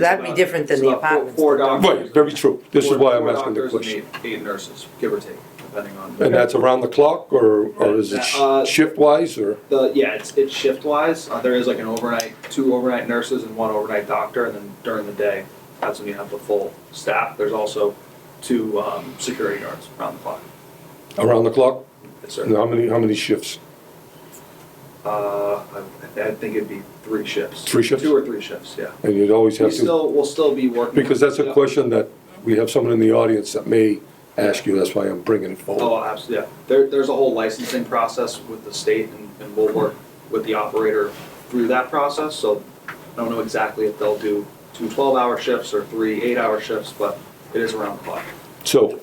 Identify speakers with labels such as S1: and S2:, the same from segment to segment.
S1: That'd be different than the
S2: About four-
S1: apartments.
S2: Four doctors.
S3: Right, very true. This is
S2: Four-
S3: why I'm
S2: four
S3: asking the
S2: doctors and
S3: question.
S2: Eight eight nurses, give or take, depending on.
S3: And that's around the clock, or, or is it
S2: Uh,
S3: shift wise, or?
S2: The, yeah, it's, it's shift wise. Uh, there is like an overnight, two overnight nurses and one overnight doctor, and then during the day, that's when you have the full staff. There's also two, um, security guards around the clock.
S3: Around the clock?
S2: Yes,
S3: And
S2: sir.
S3: how many, how many shifts?
S2: Uh, I, I think it'd be three shifts.
S3: Three shifts?
S2: Two or three shifts, yeah.
S3: And you'd always
S2: We
S3: have to,
S2: still, we'll still be working. uh,
S3: because that's a
S2: Yeah.
S3: question that we have someone in the audience that may ask you, that's why I'm bringing it forward.
S2: Oh, absolutely, yeah. There, there's a whole licensing process with the state and, and we'll work with the operator through that process, so I don't know exactly if they'll do two twelve-hour shifts or three eight-hour shifts, but it is around the clock.
S3: So,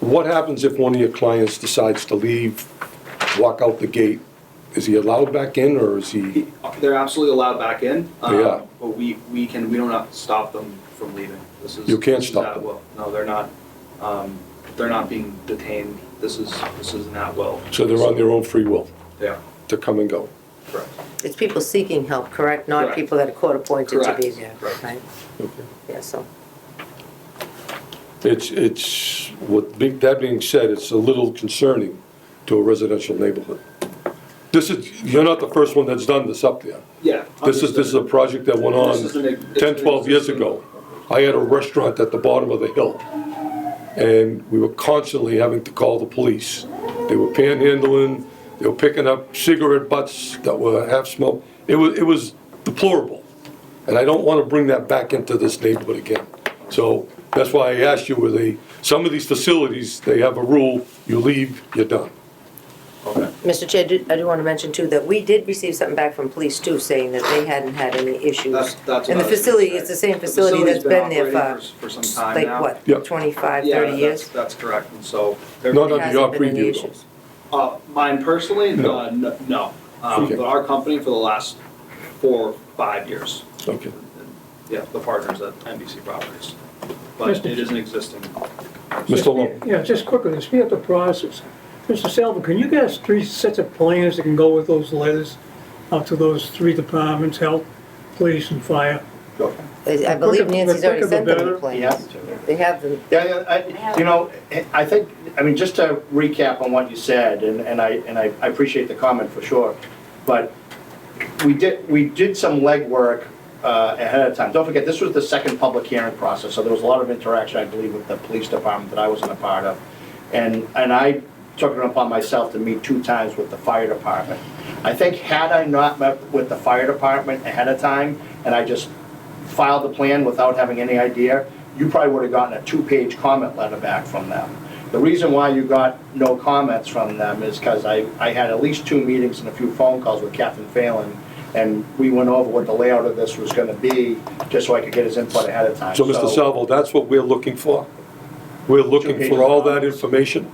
S3: what happens if one of your clients decides to leave, walk out the gate? Is he allowed back in, or is he,
S2: He- They're absolutely allowed back in. um,
S3: Yeah.
S2: But we, we can, we don't have to stop them from leaving. This is.
S3: You can't
S2: this is
S3: stop
S2: at
S3: them.
S2: will. No, they're not, um, they're not being detained. This is, this is not well.
S3: so they're on their own free will
S2: They are,
S3: to come and go?
S2: correct.
S1: It's people seeking help, correct? Not
S2: Correct.
S1: people that are court appointed to be
S2: Correct,
S1: there,
S2: correct.
S1: right?
S3: Okay.
S1: Yeah, so,
S3: It's, it's, what, be- that being said, it's a little concerning to a residential neighborhood. This is, you're not the first one that's done this up there.
S2: Yeah.
S3: This is, this is a project that went
S2: This is an
S3: on
S2: ex- it's
S3: 10,
S2: an
S3: 12 years
S2: existing-
S3: ago. I had a restaurant at the bottom of the hill, and we were constantly having to call the police. They were panhandling, they were picking up cigarette butts that were half-smoked. It was, it was deplorable, and I don't want to bring that back into this neighborhood again. So that's why I asked you, were they, some of these facilities, they have a rule, you leave, you're done.
S2: Okay.
S1: Mr. Chair, do- I do want to mention too that we did receive something back from police too, saying that they hadn't had any issues.
S2: That's, that's what I was
S1: And the
S2: gonna
S1: facility,
S2: say.
S1: it's the same facility that's
S2: facility's
S1: been there
S2: operating
S1: for,
S2: For some time
S1: like
S2: now.
S1: what,
S3: Yep.
S1: 25,
S2: Yeah,
S1: 30
S2: that's-
S1: years?
S2: That's correct, and so.
S3: No,
S1: There
S3: no,
S1: hasn't
S3: your
S1: been any
S3: preview,
S1: issues.
S2: Uh, mine personally,
S3: No.
S2: uh, n- no, um,
S3: Okay.
S2: but our company for the last four, five years.
S3: Okay.
S2: Yeah, the partners at NBC Properties, but it isn't existing.
S3: Mr. Long?
S4: Yeah, just quickly, to speed up the process, Mr. Salvo, can you get us three sets of plans that can go with those letters out to those three departments, health, police, and fire?
S1: I I
S4: The
S1: believe
S4: quicker-
S1: Nancy's
S4: the
S1: already
S4: quicker
S1: sent
S4: the
S1: them the
S4: better.
S5: Yeah,
S1: plans. They have them,
S5: yeah, yeah, I, you know, eh, I think, I mean, just to recap on what you said, and, and I, and I I appreciate the comment for sure, but we did, we did some legwork uh, ahead of time. Don't forget, this was the second public hearing process, so there was a lot of interaction, I believe, with the police department that I wasn't a part of. And, and I took it upon myself to meet two times with the fire department. I think had I not met with the fire department ahead of time, and I just filed the plan without having any idea, you probably would have gotten a two-page comment letter back from them. The reason why you got no comments from them is because I, I had at least two meetings and a few phone calls with Captain Phelan, and we went over what the layout of this was gonna be, just so I could get his input ahead of time.
S3: So, Mr. Salvo, that's what we're looking for? We're looking for all that information?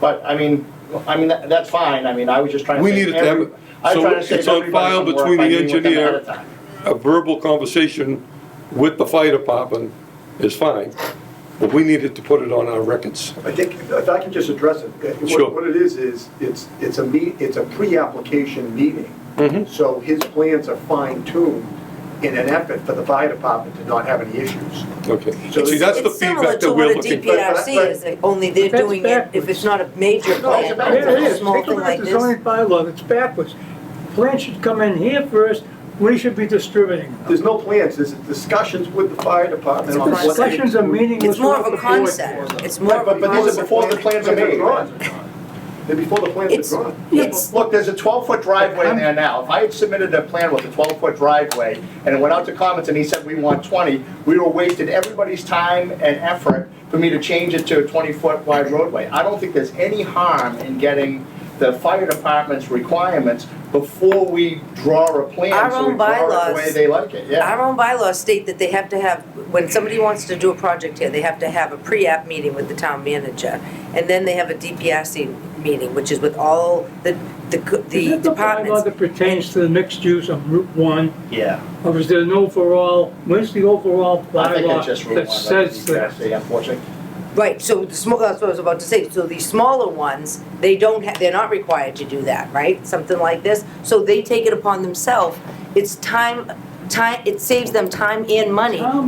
S5: But, I mean, I mean, that- that's fine, I mean, I was just trying to.
S3: We
S5: save
S3: needed to have-
S5: every- I was
S3: so
S5: trying to save
S3: it's on
S5: everybody
S3: file
S5: some work
S3: between
S5: by
S3: the
S5: meeting with them
S3: engineer-
S5: ahead of time.
S3: A verbal conversation with the fire department is fine, but we needed to put it on our records.
S6: I think, if I can just address it. uh, what-
S3: Sure.
S6: What it is, is it's, it's a meet, it's a pre-application meeting. So his plans are fine-tuned in an effort for the fire department to not have any issues.
S3: Okay.
S6: So
S3: See,
S1: it's
S3: that's the
S1: it's similar
S3: feedback
S1: to
S3: that
S1: what
S3: we're
S1: a
S3: looking
S6: DPI
S3: for.
S1: DPRC is, like, only they're
S4: That's
S1: doing it if
S4: backwards.
S1: it's not a major
S6: No, it's
S1: plan,
S6: about-
S4: There it
S1: it's a
S4: is,
S1: small
S4: take a
S1: thing
S4: look at
S1: like
S4: the
S1: this.
S4: zoning bylaw, it's backwards. Plans should come in here first, we should be distributing them.
S6: There's no plans, there's discussions with the fire department on what. they-
S4: Discussions are meeting
S1: It's
S4: with.
S1: more of a concept, it's more of a
S5: But- but these are
S1: concept.
S5: before the plans are made.
S6: drawn. They're before the
S1: It's-
S6: plans are drawn.
S1: It's,
S5: Look, there's a 12-foot driveway in there now. If I had submitted a plan with a 12-foot driveway and it went out to comments and he said, we want 20, we were wasted everybody's time and effort for me to change it to a 20-foot wide roadway. I don't think there's any harm in getting the fire department's requirements before we draw a
S1: Our
S5: plan, so
S1: own
S5: we draw it the way
S1: bylaws-
S5: they like it, yeah.
S1: our own bylaws state that they have to have, when somebody wants to do a project here, they have to have a pre-app meeting with the town manager. And then they have a DPRC meeting, which is with all the, the co-
S4: Is
S1: the
S4: it the bylaw
S1: departments.
S4: that pertains to the mixed use on Route One?
S5: Yeah.
S4: Or is there an overall, where's the overall
S5: I think it's just
S4: bylaw
S5: Route 1,
S4: that says
S5: like
S4: that?
S5: the DPSA, unfortunately.
S1: Right, so the small, that's what I was about to say, so the smaller ones, they don't, ha- they're not required to do that, right? Something like this, so they take it upon themselves, it's time time, it saves them time and money
S4: Tom